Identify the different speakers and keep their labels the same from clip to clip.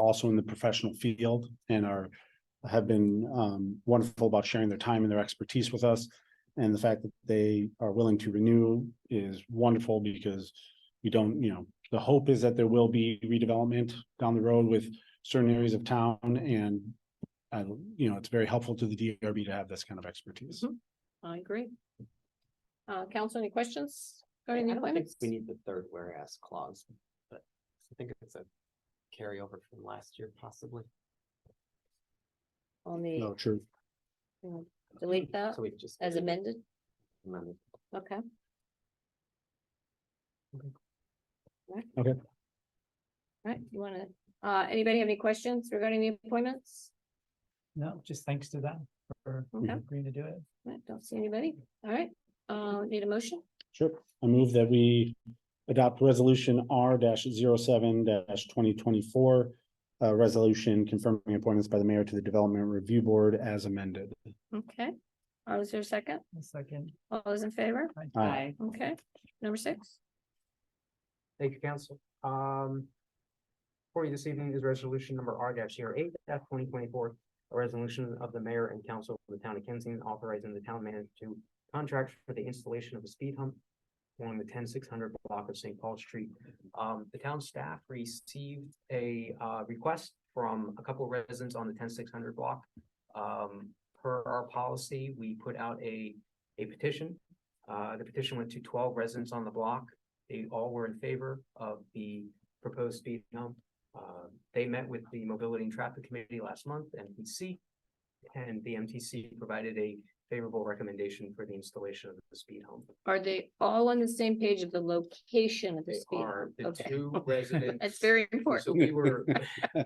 Speaker 1: also in the professional field and are have been um wonderful about sharing their time and their expertise with us. And the fact that they are willing to renew is wonderful because we don't, you know, the hope is that there will be redevelopment down the road with certain areas of town and I, you know, it's very helpful to the DRB to have this kind of expertise.
Speaker 2: I agree. Uh, council, any questions regarding the
Speaker 3: I don't think
Speaker 2: appointments?
Speaker 3: we need the third whereas clause, but I think it's a carryover from last year possibly.
Speaker 2: On the,
Speaker 1: No, true.
Speaker 2: delete that
Speaker 3: So we just.
Speaker 2: as amended,
Speaker 3: amended.
Speaker 2: okay?
Speaker 3: Okay.
Speaker 2: Right.
Speaker 1: Okay.
Speaker 2: Right, you wanna, uh, anybody have any questions regarding the appointments?
Speaker 4: No, just thanks to them for
Speaker 3: Mm-hmm.
Speaker 2: Okay.
Speaker 4: agreeing to do it.
Speaker 2: I don't see anybody, all right, uh, need a motion,
Speaker 1: Sure. I move that we adopt resolution R 7 twenty twenty-four. A resolution confirming appointments by the mayor to the Development Review Board as amended.
Speaker 2: okay? Uh, is there a second?
Speaker 4: A second.
Speaker 2: All those in favor?
Speaker 1: Aye.
Speaker 2: Okay, number six,
Speaker 5: Thank you, council. Um. For you this evening is resolution number R dash zero eight dash twenty twenty-four. A resolution of the mayor and council of the town of Kensington authorizing the town manager to contract for the installation of a speed hump. Along the ten six hundred block of St. Paul Street. Um, the town staff received a uh request from a couple of residents on the ten six hundred block. Um, per our policy, we put out a a petition. Uh, the petition went to twelve residents on the block they all were in favor of the proposed speed hump. Uh, they met with the Mobility and Traffic Committee last month, MTC. And the MTC provided a favorable recommendation for the installation of the speed hump.
Speaker 2: are they all on the same page of the location of the
Speaker 5: They
Speaker 2: speed?
Speaker 5: are the
Speaker 2: Okay.
Speaker 5: two residents.
Speaker 2: That's very
Speaker 5: So
Speaker 2: important,
Speaker 5: we were,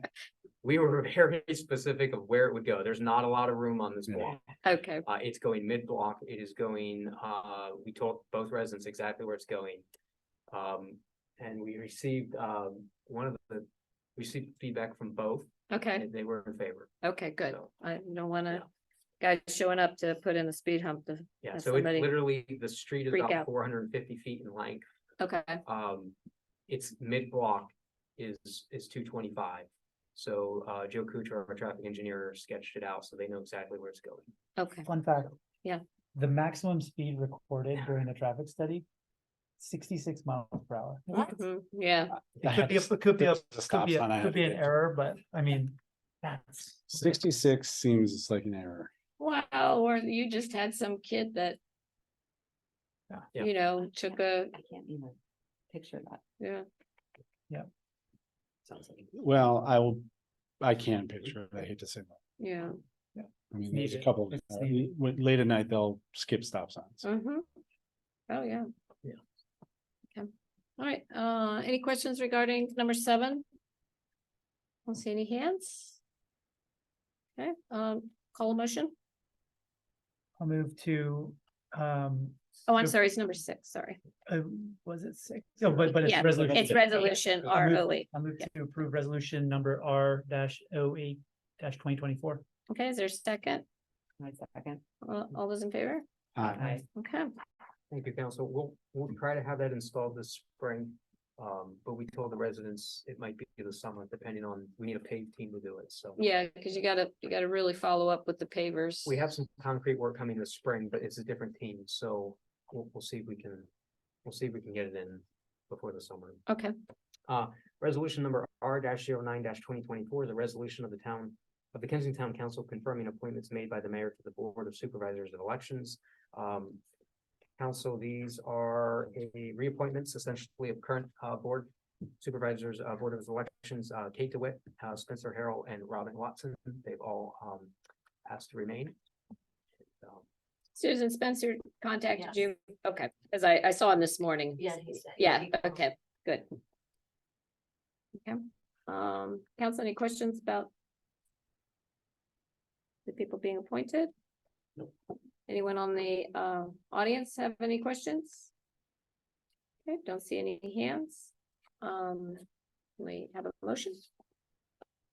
Speaker 5: we were very specific of where it would go. There's not a lot of room on this
Speaker 1: Yeah.
Speaker 5: block.
Speaker 2: okay,
Speaker 5: Uh, it's going mid-block, it is going, uh, we told both residents exactly where it's going. Um, and we received, um, one of the, we received feedback from both,
Speaker 2: okay,
Speaker 5: and they were in favor.
Speaker 2: okay, good,
Speaker 5: So,
Speaker 2: I don't wanna. Guys showing up to put in the speed hump, to-
Speaker 5: Yeah,
Speaker 2: Has
Speaker 5: so it's
Speaker 2: somebody
Speaker 5: literally, the street is
Speaker 2: freak
Speaker 5: about
Speaker 2: out?
Speaker 5: four hundred and fifty feet in length,
Speaker 2: okay,
Speaker 5: um, it's mid-block is, is two twenty-five. So, uh, Joe Kuchar, our traffic engineer, sketched it out, so they know exactly where it's going.
Speaker 2: okay,
Speaker 4: Fun fact.
Speaker 2: Yeah.
Speaker 4: The maximum speed recorded during the traffic study, sixty-six miles per hour.
Speaker 2: Mhm, yeah,
Speaker 4: Mm-hmm. It could be, it could be, a-
Speaker 1: There's a
Speaker 4: could
Speaker 1: stop
Speaker 4: be,
Speaker 1: sign I
Speaker 4: a-
Speaker 1: had to
Speaker 4: could be an
Speaker 1: get.
Speaker 4: error, but I mean, that's.
Speaker 1: Sixty-six seems like an error.
Speaker 2: wow, or you just had some kid that.
Speaker 4: Yeah.
Speaker 5: Yeah.
Speaker 2: You know, took a,
Speaker 3: I can't even picture that.
Speaker 2: yeah,
Speaker 3: Sounds like.
Speaker 1: Well, I will, I can picture it. I hate to say that.
Speaker 2: yeah,
Speaker 1: I mean, there's a
Speaker 4: Needed.
Speaker 1: couple,
Speaker 4: It's
Speaker 1: uh,
Speaker 4: needed.
Speaker 1: w- late at night, they'll skip stop signs.
Speaker 2: mhm. Oh, yeah.
Speaker 5: Yeah.
Speaker 2: Okay, all right, uh, any questions regarding number seven? Don't see any hands. Okay, um, call a motion,
Speaker 4: I'll move to, um,
Speaker 2: oh, I'm
Speaker 4: So-
Speaker 2: sorry, it's number six, sorry,
Speaker 4: uh, was it six? No, but, but it's
Speaker 2: Yeah,
Speaker 4: resolution.
Speaker 2: it's resolution
Speaker 4: I'll
Speaker 2: R
Speaker 4: move-
Speaker 2: O E. eight,
Speaker 4: I'll move to approve resolution number R dash oh eight dash twenty twenty-four.
Speaker 2: okay, is there a second,
Speaker 3: My second.
Speaker 2: all, all those in favor?
Speaker 1: Uh,
Speaker 3: Aye.
Speaker 2: Okay,
Speaker 5: Thank you, council. We'll, we'll try to have that installed this spring. Um, but we told the residents it might be the summer, depending on, we need a paved team to do it, so.
Speaker 2: yeah, cause you gotta, you gotta really follow up with the pavers.
Speaker 5: We have some concrete work coming this spring, but it's a different team, so we'll, we'll see if we can, we'll see if we can get it in before the summer. Uh,
Speaker 2: Okay,
Speaker 5: Resolution number R 9 twenty twenty-four, the resolution of the town of the Kensington Town Council confirming appointments made by the mayor to the Board of Supervisors of Elections. Um, council, these are a reappointments essentially of current, uh, board supervisors, uh, Board of Elections, uh, Kate DeWitt, uh, Spencer Harrell, and Robin Watson. They've all, um, asked to remain. Um,
Speaker 2: Susan Spencer contacted
Speaker 3: Yes.
Speaker 2: you, okay, cause I, I saw him this morning.
Speaker 3: Yeah, he said- yeah,
Speaker 2: Yeah,
Speaker 3: he called.
Speaker 2: okay, good. Okay, um, council, any questions about? The people being appointed? Anyone on the, uh, audience have any questions? Okay, don't see any hands. Um, we have a motion,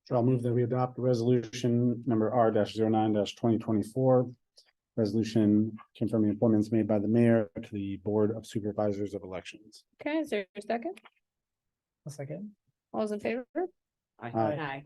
Speaker 1: So I'll move that we adopt resolution number R 9 twenty twenty-four. Resolution confirming appointments made by the mayor to the Board of Supervisors of Elections.
Speaker 2: okay, is there a second?
Speaker 4: A second.
Speaker 2: All those in favor?
Speaker 1: Aye.
Speaker 6: Aye.